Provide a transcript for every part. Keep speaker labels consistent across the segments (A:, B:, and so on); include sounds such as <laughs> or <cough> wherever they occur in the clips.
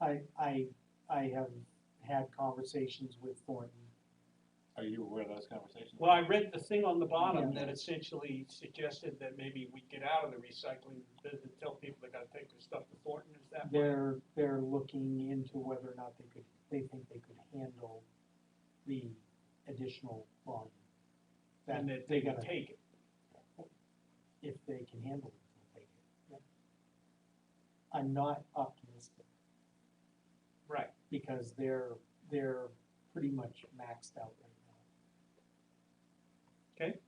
A: I, I, I have had conversations with Thornton.
B: Are you aware of those conversations?
C: Well, I read the thing on the bottom
A: Yeah.
C: that essentially suggested that maybe we get out of the recycling, business and tell people they gotta take their stuff to Thornton, is that?
A: They're, they're looking into whether or not they could, they think they could handle the additional volume.
C: And that they can take it,
A: if they can handle it, they'll take it. Yeah. I'm not optimistic
C: right,
A: because they're, they're pretty much maxed out right now.
C: Okay.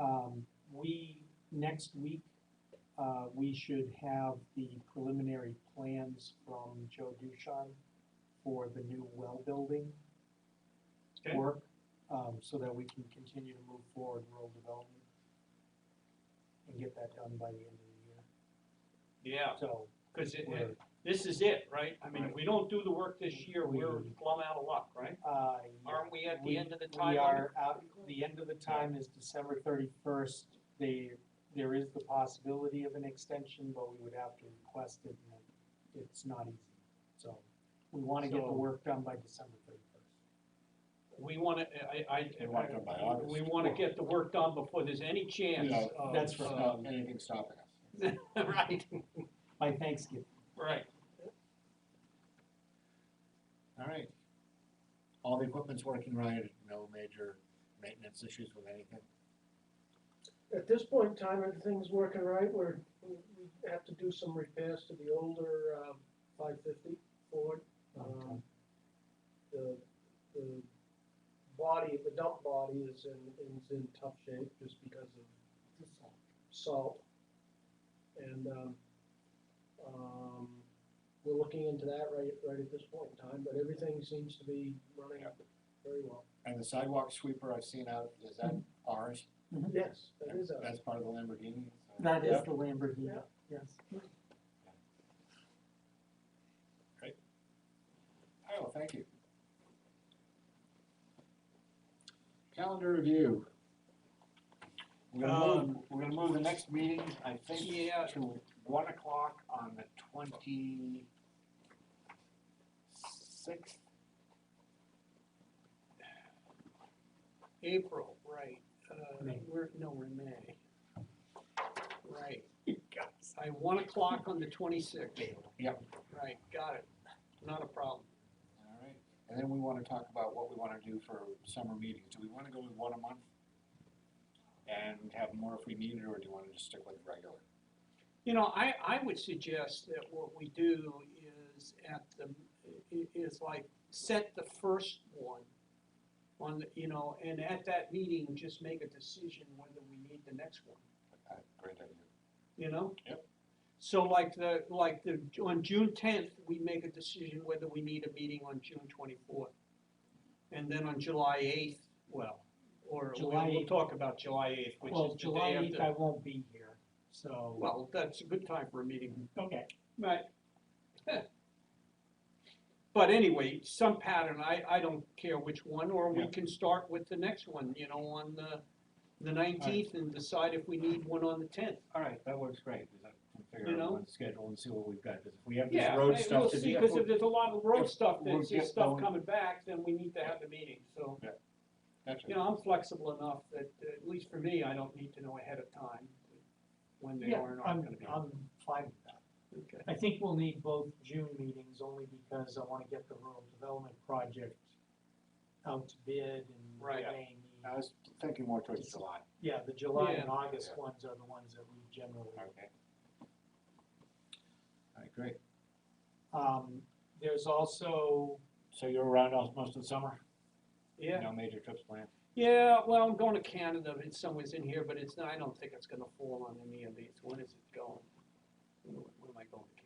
A: Um, we, next week, uh, we should have the preliminary plans from Joe Dushan for the new well building
C: okay,
A: work, um, so that we can continue to move forward rural development and get that done by the end of the year.
C: yeah,
A: So,
C: cause it,
A: we're,
C: this is it, right? I mean, if we don't do the work this year, we're plumb out of luck, right?
A: uh, yeah,
C: Aren't we at
A: We-
C: the end of the
A: we
C: time? limit?
A: are out, the end of the time is December thirty-first. They, there is the possibility of an extension, but we would have to request it, and it- it's not easy. So, we wanna get
C: So-
A: the work done by December thirty-first.
C: We wanna, I, I.
B: We want it done by August.
C: We wanna get the work done before there's any chance
B: No,
C: of.
A: that's
B: There's
A: right.
C: uh,
B: not anything stopping us.
C: <laughs> Right,
A: By Thanksgiving,
C: right,
B: All right. All the equipment's working right, no major maintenance issues with anything?
D: At this point in time, everything's working right, we're, we we have to do some repairs to the older, um, five fifty Ford.
A: Okay.
D: Um, The, the body, the dump body is in, is in tough shape just because of salt. And, um, um, we're looking into that right, right at this point in time, but everything seems to be running
B: Yep.
D: very well.
B: And the sidewalk sweeper I've seen out, is that ours?
D: Yes, that is us.
B: That's part of the Lamborghini? so-
A: that is
B: Yep.
A: the Lamborghini,
D: Yeah.
A: yes.
B: All right, well, Oh, thank you. Calendar review. We're gonna move, we're gonna move the next meeting, I think,
C: Yeah.
B: to one o'clock on the twenty-sixth.
C: April, right, uh,
A: May.
C: we're, no, we're in May. Right, I, one o'clock on the twenty-sixth.
B: Yep.
C: Right, got it, not a problem.
B: All right, and then we wanna talk about what we wanna do for summer meetings. Do we wanna go with one a month? And have more if we need it, or do you wanna just stick with regular?
C: You know, I, I would suggest that what we do is at the, i- is like, set the first one on, the you know, and at that meeting, just make a decision whether we need the next one.
B: Uh, Great idea.
C: you know?
B: Yep.
C: So like the, like the, on June tenth, we make a decision whether we need a meeting on June twenty-fourth. And then on July eighth, well, or we-
A: July
C: we'll
A: 8th.
C: talk about July eighth, which
A: Well,
C: is the
A: July
C: day
A: eighth, I
C: after.
A: won't be here, so.
C: Well, that's a good time for a meeting,
A: Okay,
C: right? <laughs> But anyway, some pattern, I, I don't care which one, or we
B: Yeah.
C: can start with the next one, you know, on the, the nineteenth and decide if we need one on the tenth.
B: All right, that works great, we can
C: You
B: figure
C: know?
B: out one schedule and see what we've got, because if we have this
C: Yeah,
B: road
C: I-
B: stuff
C: we'll
B: to
C: see,
B: do.
C: because if there's a lot of road stuff,
B: we'll
C: that's
B: get
C: just stuff
B: going.
C: coming back, then we need to have the meeting, so,
B: Gotcha.
C: you know, I'm flexible enough that, uh, at least for me, I don't need to know ahead of time when they
A: yeah,
C: are and
A: I'm,
C: aren't gonna be.
A: I'm fine with that.
C: Okay.
A: I think we'll need both June meetings only because I wanna get the rural development project out to bid and
C: Right.
A: weighing.
B: I was thinking more towards July.
A: Yeah, the July
C: Yeah.
A: and August
B: Yeah.
A: ones are the ones that we generally,
B: Okay. All right, great.
A: um, there's also,
B: So you're around all, most of the summer?
C: Yeah,
B: No major trips planned?
C: yeah, well, I'm going to Canada, it's somewhere's in here, but it's, not- I don't think it's gonna fall on any of these, when is it going? When when am I going to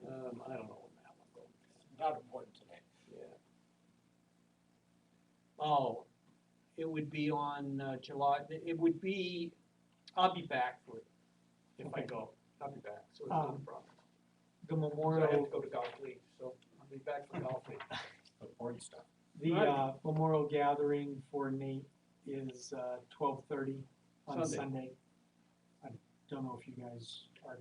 C: Canada? Um, I don't know when that one goes,
B: Not important today.
C: yeah. Oh, it would be on uh, July, it would be, I'll be back for it, if I
A: Okay.
C: go, I'll be back, so it's not a
A: Um,
C: problem.
A: the
C: So I have
A: memorial,
C: to go to golf league, so I'll be back for golf league.
B: Important stuff.
A: the,
C: Right.
A: uh, memorial gathering for Nate is, uh, twelve thirty on
C: Sunday.
A: Sunday. I don't know if you guys are